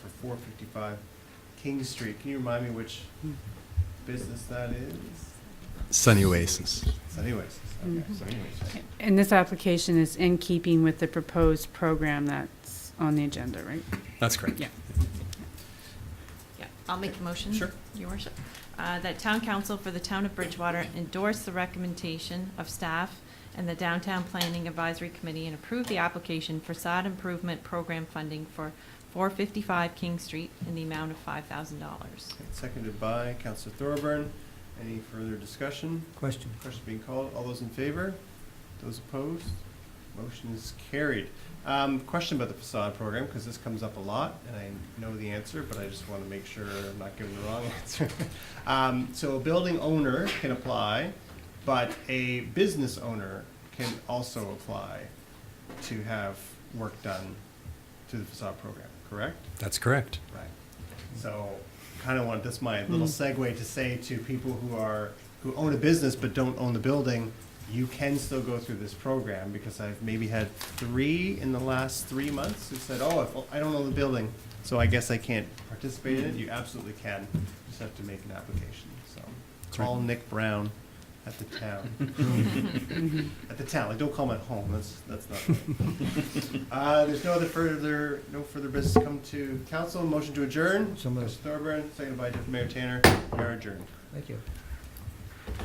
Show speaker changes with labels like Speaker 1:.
Speaker 1: four fifty-five King Street. Can you remind me which business that is?
Speaker 2: Sunny Oasis.
Speaker 1: So anyways, okay, so anyways.
Speaker 3: And this application is in keeping with the proposed program that's on the agenda, right?
Speaker 2: That's correct.
Speaker 3: Yeah.
Speaker 4: Yeah, I'll make a motion.
Speaker 2: Sure.
Speaker 4: Your worship. Uh, That town council for the town of Bridgewater endorse the recommendation of staff and the downtown planning advisory committee and approve the application for sod improvement program funding for 455 King Street in the amount of $5,000.
Speaker 1: Seconded by Counselor Thorburn. Any further discussion?
Speaker 5: Question.
Speaker 1: Question being called. All those in favor? Those opposed? Motion is carried. Um, question about the facade program, because this comes up a lot, and I know the answer, but I just want to make sure I'm not giving the wrong answer. Um, so a building owner can apply, but a business owner can also apply to have work done to the facade program, correct?
Speaker 2: That's correct.
Speaker 1: Right. So, kind of want, this my little
Speaker 2: Hmm.
Speaker 1: segue to say to people who are, who own a business but don't own the building, you can still go through this program, because I've maybe had three in the last three months who said, oh, if- I don't own the building, so I guess I can't participate
Speaker 2: Hmm.
Speaker 1: in it. You absolutely can, just have to make an application, so.
Speaker 2: That's right.
Speaker 1: Call Nick Brown at the town. At the town, like, don't call him at home, that's, that's not right. Uh, there's no other further, no further business come to council. Motion to adjourn.
Speaker 5: So moved.
Speaker 1: Mr. Thorburn, seconded by Deputy Mayor Tanner. We are adjourned.
Speaker 5: Thank you.